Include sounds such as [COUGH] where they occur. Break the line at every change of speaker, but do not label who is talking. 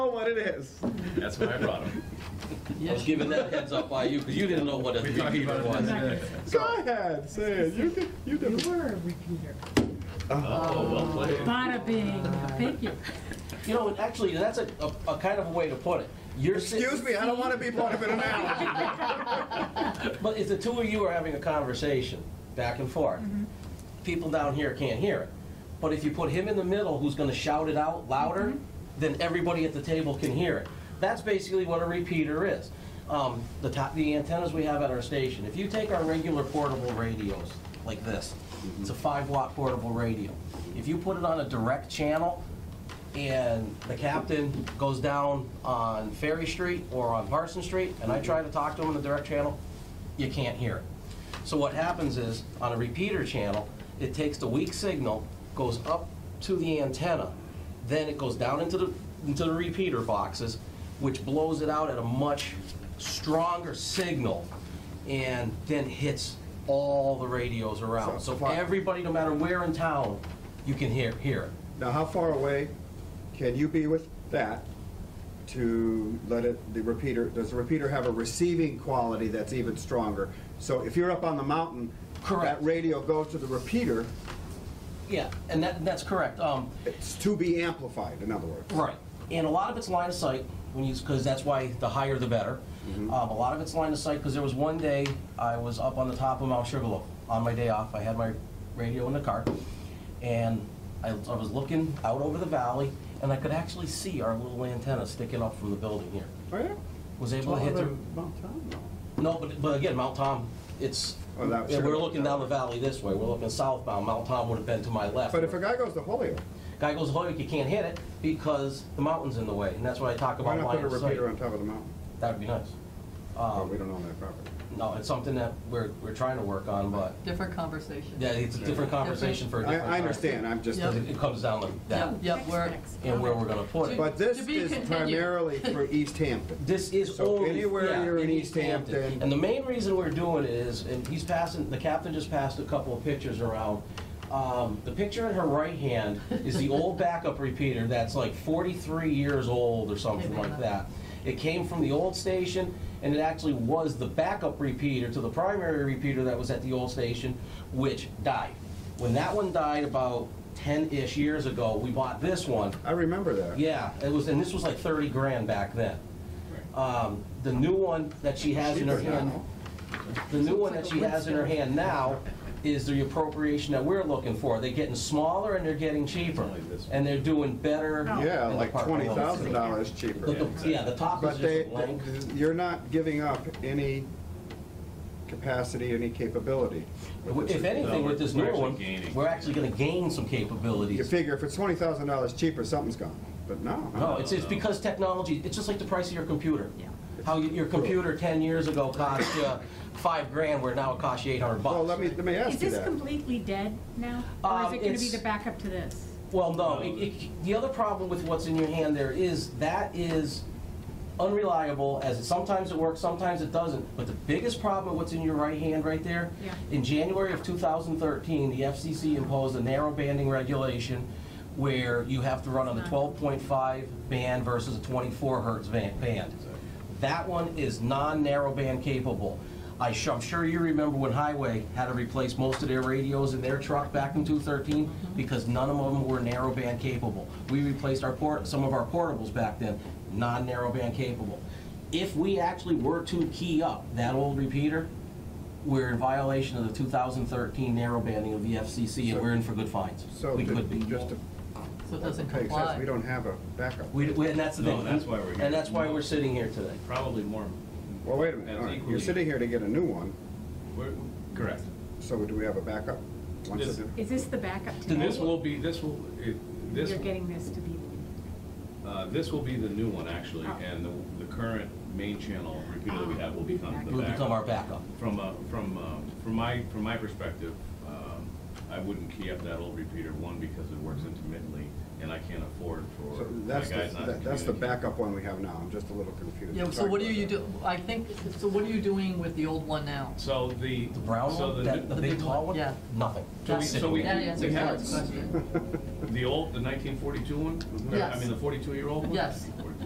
what it is.
That's why I brought [LAUGHS] him.
I was giving that heads up by you, because you didn't know what a
We talked
repeater
about it the
was.
other day.
Go ahead, say it. You did, you
You
did.
were a repeater.
Oh, well played.
Bada bing, thank you.
You know, actually, that's a, a, a kind of a way to put it. You're sit-
Excuse me, I don't want to be part of an analogy.
But if the two of you are having a conversation back and forth, people down here can't hear it. But if you put him in the middle, who's going to shout it out louder, then everybody at the table can hear it. That's basically what a repeater is. Um, the top, the antennas we have at our station. If you take our regular portable radios like this, it's a five watt portable radio. If you put it on a direct channel, and the captain goes down on Ferry Street or on Parson Street, and I try to talk to him in the direct channel, you can't hear it. So what happens is, on a repeater channel, it takes the weak signal, goes up to the antenna, then it goes down into the, into the repeater boxes, which blows it out at a much stronger signal, and then hits all the radios around. So
So- wow.
everybody, no matter where in town, you can hear, hear it.
Now, how far away can you be with that to let it, the repeater, does the repeater have a receiving quality that's even stronger? So if you're up on the mountain,
Correct.
that radio goes to the repeater,
Yeah, and that, that's correct. Um,
it's to be amplified, in other words.
right. And a lot of it's line of sight, when you, because that's why the higher the better.
Mm-hmm.
Um, a lot of it's line of sight, because there was one day I was up on the top of Mount Sugarloaf on my day off. I had my radio in the car, and I, I was looking out over the valley, and I could actually see our little antenna sticking up from the building here.
Oh, yeah?
Was able
Well,
to hit
they're
the.
mountain, though.
No, but, but again, Mount Tom, it's.
Oh, that was
yeah, we're
Sugarloaf.
looking down the valley this way. We're looking southbound. Mount Tom would have been to my left.
But if a guy goes to Holyoke,
Guy goes, Hoyok, you can't hit it because the mountain's in the way, and that's what I talk
why
about
not
line
put a
of sight.
repeater on top of the mountain?
That'd be nice.
Well, we
Um,
don't own that property.
no, it's something that we're, we're trying to work on, but,
Different conversation.
yeah, it's a different conversation for a
I,
different time.
I understand, I'm just,
Yeah.
Because it- it comes down to that,
Yep, yep, we're,
and where we're gonna put it.
but this
To be
is
continued.
primarily
[LAUGHS]
for East Hampton.
This is
So
only.
anywhere
yeah,
you're in
any
East Hampton-
And the main reason we're doing it is, and he's passing, the captain just passed a couple of pictures around. Um, the picture in her right hand is the old backup repeater that's like forty-three years old or something like that. It came from the old station, and it actually was the backup repeater to the primary repeater that was at the old station, which died. When that one died about ten-ish years ago, we bought this one,
I remember that.
yeah, it was, and this was like thirty grand back then. Um, the new one that she has in her
Cheaper
hand,
now.
the new one that she has in her hand now is the appropriation that we're looking for. They're getting smaller and they're getting cheaper, and they're doing better.
Yeah,
in the
like
park
twenty
below.
thousand dollars
The-
cheaper.
the- Yeah, the top is
But they,
just blank.
you're not giving up any capacity, any capability. with this.
If anything, with this
We're
new
actually
one,
gaining.
we're actually gonna gain some
You
capabilities.
figure if it's twenty thousand dollars cheaper, something's gone, but no.
No, it's, it's because technology, it's just like the price of your computer. How y- your computer ten years ago cost you five grand, where now it costs you eight hundred bucks.
Well, let me, let me
Is
ask you
this
that.
completely dead now? Or is
Um,
it gonna be
it's-
the backup to this?
Well, no, it, it, the other problem with what's in your hand there is that is unreliable, as it, sometimes it works, sometimes it doesn't. But the biggest problem with what's in your right hand right there,
Yeah.
in January of 2013, the FCC imposed a narrow banding regulation where you have to run on the 12.5 band versus a 24 hertz van- band. That one is non-narrowband capable. I sh- I'm sure you remember when Highway had to replace most of their radios in their truck back in 2013 because none of them were narrowband capable. We replaced our port, some of our portables back then, non-narrowband capable. If we actually were to key up that old repeater, we're in violation of the 2013 narrowbanding of the FCC and we're in for good fines.
So,
We
to-
could be.
just to
so it doesn't
make sense, we
comply.
don't have a backup.
We, we- and that's the
No,
thing.
that's why we're here.
And that's why we're sitting here today.
Probably more.
Well, wait a minute,
That's
all right, you're
equally-
sitting here to get a new one,
we're- Correct.
so do we have a backup? Once
This-
it-
Is this the backup to
This
this?
will be, this will, it- this,
You're getting this to be,
uh, this will be the new one, actually,
Oh.
and the the current main channel repeater that we have will become the
It'll
back.
Oh. become our backup.
From, uh, from, uh, from my, from my perspective, um, I wouldn't key up that old repeater, one, because it works intermittently, and I can't afford for
So
my
that's,
guys not to
the- that's the
communicate.
backup one we have now, I'm just a little confused.
Yeah, so
Sorry
what are
about
you
that.
do, I think, so what are you doing with the old one now?
So the.
The brown
so
one,
the
that,
new-
the
the
big
big
tall
one,
one?
yeah.
Nothing.
So we,
Just
so
sitting
we,
there.
That
we
answers
have
that question.
the old, the nineteen forty-two one?
Yes.
I mean, the forty-two-year-old one?
Yes.
Or-